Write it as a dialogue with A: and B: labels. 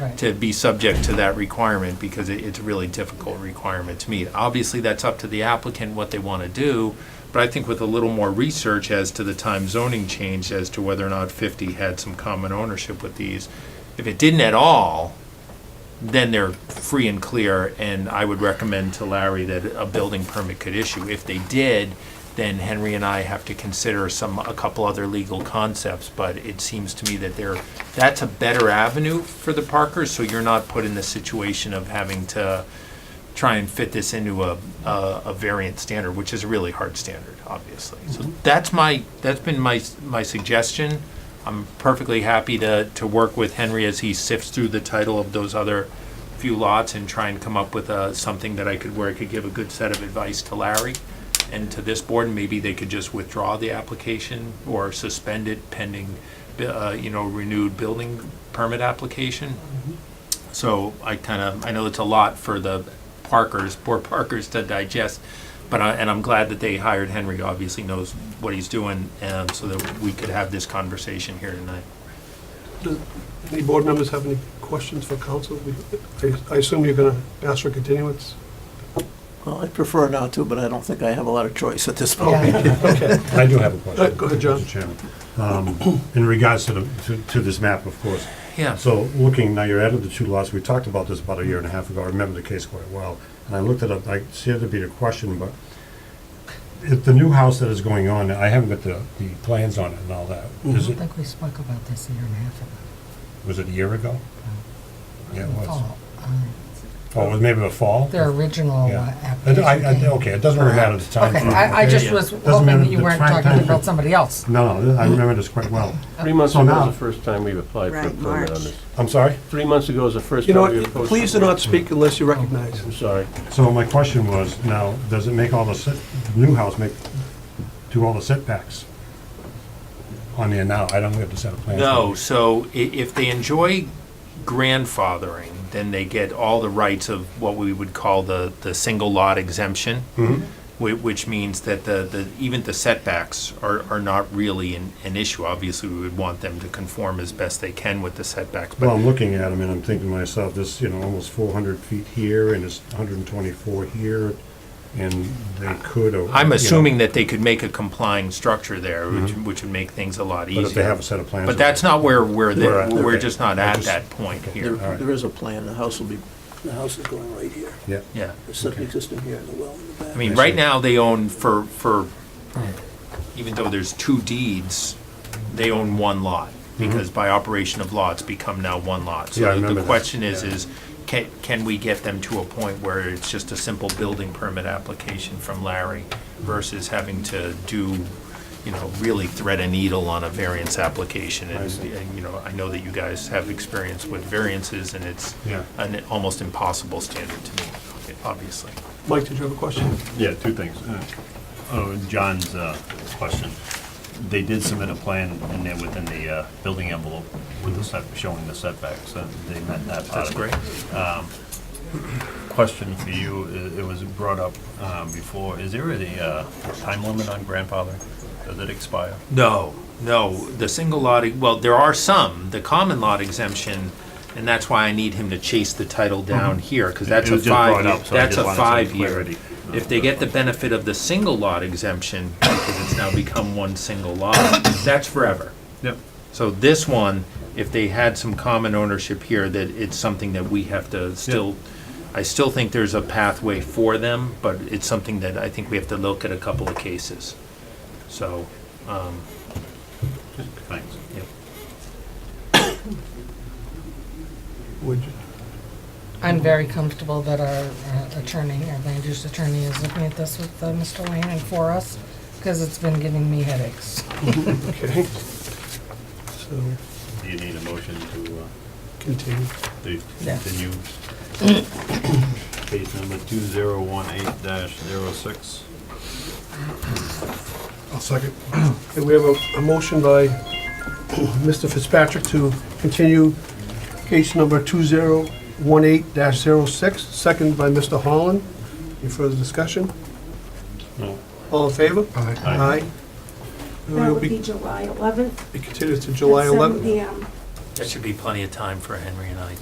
A: Right.
B: to be subject to that requirement because it, it's a really difficult requirement to meet. Obviously, that's up to the applicant what they want to do, but I think with a little more research as to the time zoning change as to whether or not 50 had some common ownership with these, if it didn't at all, then they're free and clear, and I would recommend to Larry that a building permit could issue. If they did, then Henry and I have to consider some, a couple other legal concepts, but it seems to me that they're, that's a better avenue for the Parkers, so you're not put in the situation of having to try and fit this into a, a, a variant standard, which is a really hard standard, obviously. So that's my, that's been my, s- my suggestion. I'm perfectly happy to, to work with Henry as he sifts through the title of those other few lots and try and come up with uh something that I could, where I could give a good set of advice to Larry and to this board, and maybe they could just withdraw the application or suspend it pending, bu- uh, you know, renewed building permit application. So I kind of, I know it's a lot for the Parkers, poor Parkers to digest, but I, and I'm glad that they hired Henry, obviously knows what he's doing, um, so that we could have this conversation here tonight.
C: Does Any board members have any questions for council? I assume you're going to ask for continuance?
D: Well, I'd prefer not to, but I don't think I have a lot of choice at this point.
A: Yeah.
C: Okay.
E: I do have a
C: Uh,
E: question.
C: go ahead, John.
E: Mr. Chairman. Um, In regards to the, to- to this map, of course.
B: Yeah.
E: So looking, now you're added the two lots, we talked about this about a year and a half ago, I remember the case quite well. And I looked it up, I see it to be a question, but if the new house that is going on, I haven't got the, the plans on it and all that. Is
A: I
E: it,
A: think we spoke about this a year and a half ago.
E: was it a year ago? Yeah, it was.
A: Oh, um,
E: Oh, it was maybe a fall?
A: Their original uh,
E: Yeah. I-
A: application.
E: I- I-
A: came-
E: Okay, it doesn't really matter the time.
A: Okay,
E: frame,
A: I, I
E: okay?
A: just was
E: Doesn't
A: hoping
E: matter
A: that you
E: the
A: weren't
E: time-
A: talking
E: time frame.
A: about somebody else.
E: No, no, I remember this quite well.
F: Three months
E: So
F: ago
E: now-
F: was the first time we've applied for a
G: Right,
F: permit on
G: March.
F: this.
E: I'm sorry?
F: Three months ago was the first
C: You
F: time
C: know
F: we
C: what,
F: approached.
C: please do
F: the-
C: not speak unless you recognize.
F: I'm sorry.
E: So my question was, now, does it make all the, set- new house make, do all the setbacks on there now? I don't have to set a plan.
B: No, so i- if they enjoy grandfathering, then they get all the rights of what we would call the, the single lot exemption. Which, which means that the, the, even the setbacks are, are not really an, an issue. Obviously, we would want them to conform as best they can with the setbacks, but
E: Well, I'm looking at them and I'm thinking to myself, this, you know, almost four hundred feet here and it's hundred and twenty-four here, and they could. or- you
B: I'm
E: know, Mm-hmm.
B: assuming that they could make a complying structure there, which, which would make things a lot easier.
E: But if they have a set of plans.
B: But that's not where we're, the-
E: We're at,
B: we're
E: okay.
B: just not
E: I
B: at
E: just-
B: that point
D: There
B: here.
E: All right.
D: there is a plan, the house will be,
C: The house is going right here.
E: Yeah.
B: Yeah.
C: The septic system here and the well in the back.
B: I mean,
E: I
B: right
E: see.
B: now, they own for, for,
E: Hmm.
B: even though there's two deeds, they own one lot, because by operation of law, it's become now one lot.
E: Mm-hmm. Yeah, I
B: So the-
E: remember
B: the
E: that.
B: question is,
E: Yeah.
B: is can, can we get them to a point where it's just a simple building permit application from Larry versus having to do, you know, really thread a needle on a variance application?
E: I
B: And,
E: see.
B: and, you know, I know that you guys have experience with variances, and it's
E: Yeah.
B: an almost impossible standard to meet, obviously.
C: Mike, did you have a question?
H: Yeah, two things. Uh, Oh, John's uh, question. They did submit a plan in there within the uh, building envelope with the set, showing the setbacks, and they met that part
B: That's
H: of it.
B: great.
H: Question for you, i- it was brought up um, before, is there a uh, time limit on grandfather? Does it expire?
B: No, no, the single lot, well, there are some, the common lot exemption, and that's why I need him to chase the title down here, because
H: Mm-hmm.
B: that's
H: It- it
B: a
H: was just brought
B: five,
H: up, so I
B: that's
H: just
B: a
H: wanted some
B: five-year.
H: clarity.
B: If they get the benefit of the single lot exemption, because it's now become one single lot, that's forever.
H: Yep.
B: So this one, if they had some common ownership here, that it's something that we have to still, I still think there's a pathway for them, but it's something that I think we have to look at a couple of cases. So, um,
H: Thanks.
B: yep.
C: Would you?
A: I'm very comfortable that our uh, attorney, our land use attorney, is looking at this with uh, Mr. Lane and for us, because it's been giving me headaches.
C: Okay. So,
H: Do you need a motion to uh,
C: continue.
H: to
A: Yeah.
H: continue? Case number 2018-06.
E: I'll second.
C: Okay, we have a, a motion by Mr. Fitzpatrick to continue case number 2018-06, second by Mr. Holland. Any further discussion?
H: No.
C: All in favor? Aye.
H: Aye.
C: It
G: That
C: will
G: would be
C: be
G: July 11th.
C: continued to July
G: at 7
C: 11th.
G: PM.
B: That should be plenty of time for Henry and I